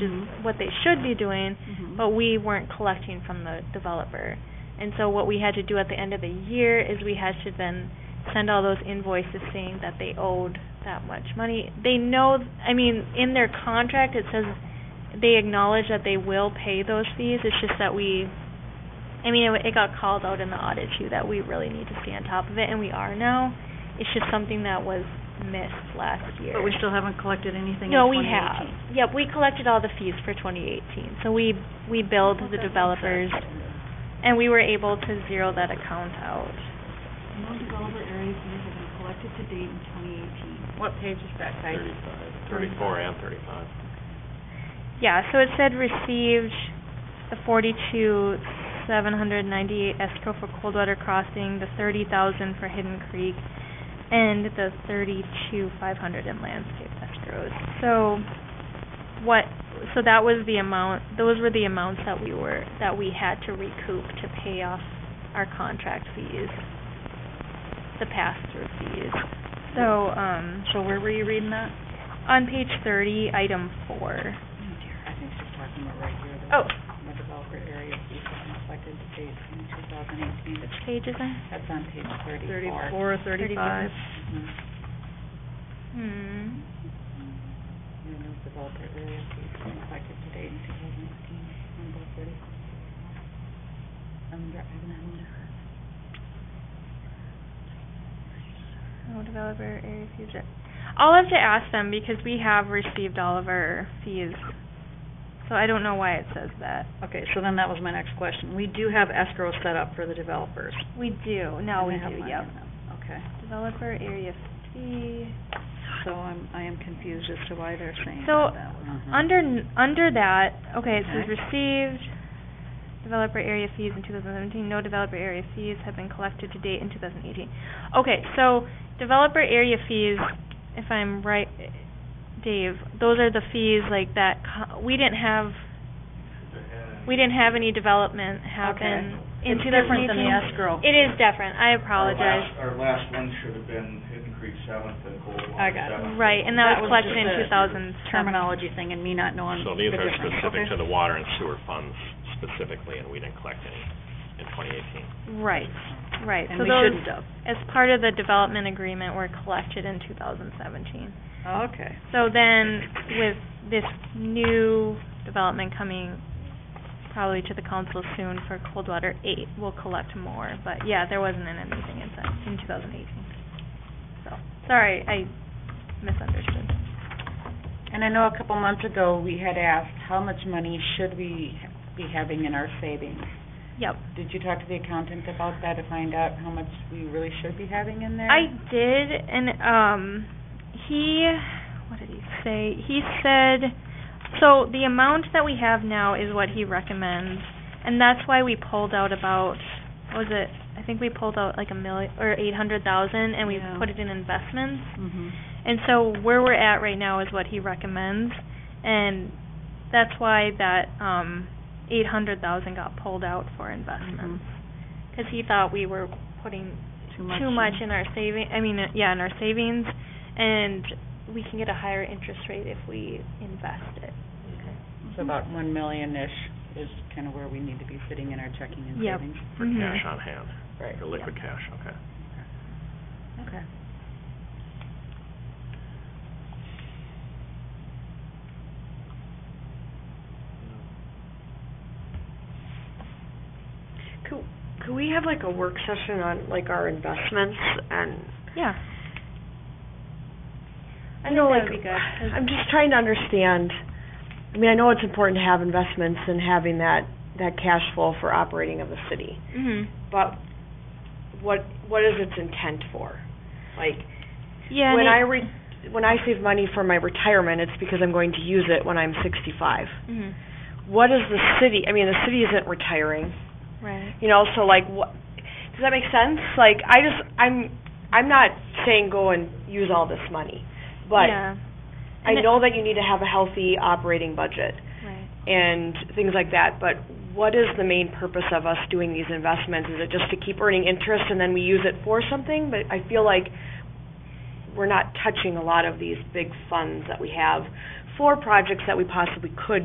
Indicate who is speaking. Speaker 1: what they should be doing, but we weren't collecting from the developer. And so what we had to do at the end of the year is we had to then send all those invoices saying that they owed that much money. They know, I mean, in their contract, it says they acknowledge that they will pay those fees. It's just that we, I mean, it, it got called out in the audit too, that we really need to stay on top of it, and we are now. It's just something that was missed last year.
Speaker 2: But we still haven't collected anything in
Speaker 1: No, we
Speaker 2: 2018.
Speaker 1: have. Yep, we collected all the fees for 2018. So we, we billed the developers, and we were able to zero that account out.
Speaker 3: No developer area fees have been collected to date in twenty eighteen.
Speaker 4: What page is that, Ty?
Speaker 5: Thirty-five, thirty-four and thirty-five.
Speaker 1: Yeah, so it said received the forty-two, seven hundred ninety-eight escrow for Coldwater Crossing, the thirty thousand for Hidden Creek, and the thirty-two, five hundred in landscape escrows. So what, so that was the amount, those were the amounts that we were, that we had to recoup to pay off our contract fees, the pass-through fees. So, um,
Speaker 2: So where were you reading that?
Speaker 1: on page thirty, item four.
Speaker 3: Oh dear, I think she's talking about right here.
Speaker 1: Oh.
Speaker 3: The developer area fees have been collected to date in two thousand eighteen.
Speaker 1: Which page is that?
Speaker 3: That's on page thirty-four.
Speaker 2: Thirty-four, thirty-five.
Speaker 3: Mhm.
Speaker 1: Hmm.
Speaker 3: And those developer area fees have been collected to date in two thousand eighteen, number thirty. Under, I'm under.
Speaker 1: No developer area fees. are- I'll have to ask them because we have received all of our fees. So I don't know why it says that.
Speaker 2: Okay, so then that was my next question. We do have escrow set up for the developers.
Speaker 1: We do, now
Speaker 2: And
Speaker 1: we
Speaker 2: they have
Speaker 1: do,
Speaker 2: money
Speaker 1: yep.
Speaker 2: in them. Okay,
Speaker 1: Developer area fee.
Speaker 2: so I'm, I am confused as to why they're saying
Speaker 1: So,
Speaker 2: that that was.
Speaker 1: Under, n- under that, Hmm. okay, it says
Speaker 2: Okay.
Speaker 1: received developer area fees in two thousand seventeen, no developer area fees have been collected to date in two thousand eighteen. Okay, so developer area fees, if I'm right, Dave, those are the fees like that, co- we didn't have, we didn't have any development happen in
Speaker 2: It's
Speaker 1: two thousand eighteen.
Speaker 2: different than the Oh, escrow.
Speaker 1: It is different, I
Speaker 6: Our
Speaker 1: apologize.
Speaker 6: last- Our last one should have been Hidden Creek Seventh and Coldwater
Speaker 2: I got it.
Speaker 6: Seventh.
Speaker 1: Right, and that
Speaker 2: That
Speaker 1: was
Speaker 2: was
Speaker 1: collected
Speaker 2: just
Speaker 1: in
Speaker 2: a
Speaker 1: two thousand seven.
Speaker 2: Terminology thing and me not knowing
Speaker 5: So
Speaker 2: the
Speaker 5: these are
Speaker 2: difference.
Speaker 5: specific to
Speaker 2: Okay.
Speaker 5: the water and sewer funds specifically, and we didn't collect any in twenty eighteen.
Speaker 1: Right, right.
Speaker 2: And
Speaker 1: So
Speaker 2: we
Speaker 1: those,
Speaker 2: shouldn't have.
Speaker 1: as part of the development agreement, were collected in two thousand seventeen.
Speaker 2: Okay,
Speaker 1: So then, with this new development coming probably to the council soon for Coldwater Eight, we'll collect more. But yeah, there wasn't anything in that, in two thousand eighteen. So, sorry, I misunderstood.
Speaker 3: And I know a couple months ago, we had asked, how much money should we be having in our savings?
Speaker 1: Yep.
Speaker 3: Did you talk to the accountant about that to find out how much we really should be having in there?
Speaker 1: I did, and um, he, what did he say? He said, so the amount that we have now is what he recommends, and that's why we pulled out about, what was it? I think we pulled out like a million or eight hundred thousand, and we
Speaker 2: Yeah.
Speaker 1: put it in investments.
Speaker 2: mhm.
Speaker 1: And so where we're at right now is what he recommends, and that's why that um, eight hundred thousand got pulled out for investments, because he thought we were putting
Speaker 2: Too much.
Speaker 1: too much in our saving, I mean, uh, yeah, in our savings, and we can get a higher interest rate if we invest it.
Speaker 2: Mm-hmm.
Speaker 3: So about one million-ish is kind of where we need to be sitting in our checking and
Speaker 1: Yep.
Speaker 3: savings.
Speaker 5: For
Speaker 7: Mm-hmm.
Speaker 1: Mhm.
Speaker 5: cash on hand,
Speaker 3: Right.
Speaker 5: for liquid cash, okay.
Speaker 3: Okay.
Speaker 7: Could, could we have like a work session on like our investments and,
Speaker 1: Yeah. I think
Speaker 7: you know,
Speaker 1: that
Speaker 7: like,
Speaker 1: would be good. 'cause-
Speaker 7: I'm just trying to understand. I mean, I know it's important to have investments and having that, that cash flow for operating of the city,
Speaker 1: Mhm.
Speaker 7: but what, what is its intent for? Like,
Speaker 1: Yeah.
Speaker 7: when
Speaker 1: and
Speaker 7: I
Speaker 1: it-
Speaker 7: re, when I save money for my retirement, it's because I'm going to use it when I'm sixty-five.
Speaker 1: Mhm.
Speaker 7: What is the city, I mean, the city isn't retiring.
Speaker 1: Right.
Speaker 7: you know so like what does that make sense like i just i'm i'm not saying go and use all this money but
Speaker 1: Yeah.
Speaker 7: i
Speaker 1: And it-
Speaker 7: know that you need to have a healthy operating budget
Speaker 1: Right.
Speaker 7: and things like that but what is the main purpose of us doing these investments is it just to keep earning interest and then we use it for something but i feel like we're not touching a lot of these big funds that we have for projects that we possibly could